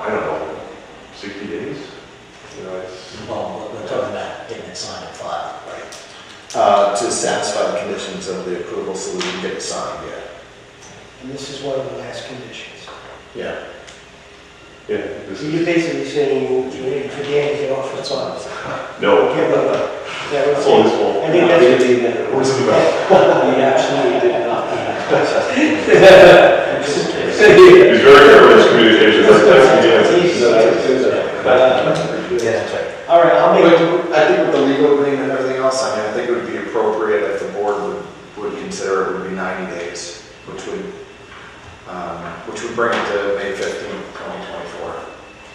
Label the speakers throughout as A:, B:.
A: I don't know, sixty days? You know, it's,
B: Well, we're- we're talking about getting it signed and filed, right?
C: uh, to satisfy the conditions of the approval so we can get it signed, yeah.
D: And this is one of the last conditions.
C: Yeah.
A: yeah, this
D: So you're
A: is,
D: basically saying you're waiting for Dan to get off the
C: That's
D: top.
C: fine.
A: no,
D: Give him a- Yeah,
A: that's
D: that's
A: all
D: all.
A: his fault.
D: I think
C: No,
D: that's-
C: we didn't need that.
A: What is it about?
C: We absolutely did not.
A: He's very careful in his communications, that's, that's,
D: That's easy.
C: Yeah.
B: that's right.
D: All right, I'll make,
C: But I think with the legal agreement and everything else, I mean, I think it would be appropriate if the board would, would consider it would be 90 days, which would, um, which would bring it to May 15th, 2024.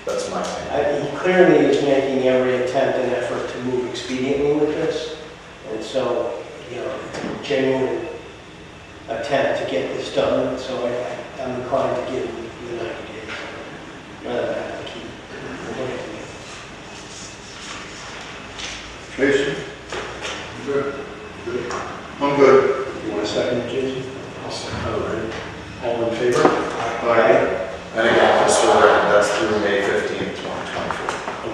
C: That's my opinion.
D: I- he clearly is making every attempt and effort to move expediently with this. And so, you know, genuine attempt to get this done, so I- I'm inclined to give him the 90 days. Rather than have to keep looking at it.
E: Jason? Good. I'm good.
F: You want a second, Jason? All right. All in favor?
E: Aye.
C: And again, just for the record, that's through May 15th, 2024.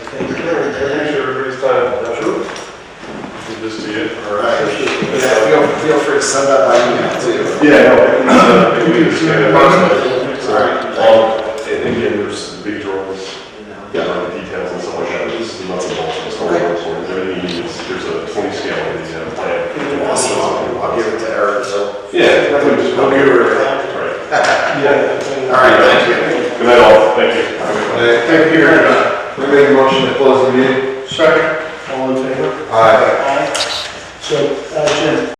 F: Okay.
A: Appreciate everybody's time. Sure. Give this to you.
C: All right. Yeah, feel, feel free to send that by email too.
A: Yeah, no, I think, uh, I think we understand the process.
C: All right.
A: Um, and and again, there's big drawings, you know, the details and stuff like that, this is nuts and bolts, it's not work for it, everything needs, there's a twenty scale in the uh, plan.
C: Awesome. I'll I'll give it to Eric, so.
A: Yeah, I think just-
C: I'll give her-
A: Right.
C: All right, thank you.
A: Good night all, thank you. Have a good one.
E: Aye. Uh, Thank you very much. We make a motion to close the meeting. Second.
F: All in favor?
E: Aye.
F: So, uh, Jim,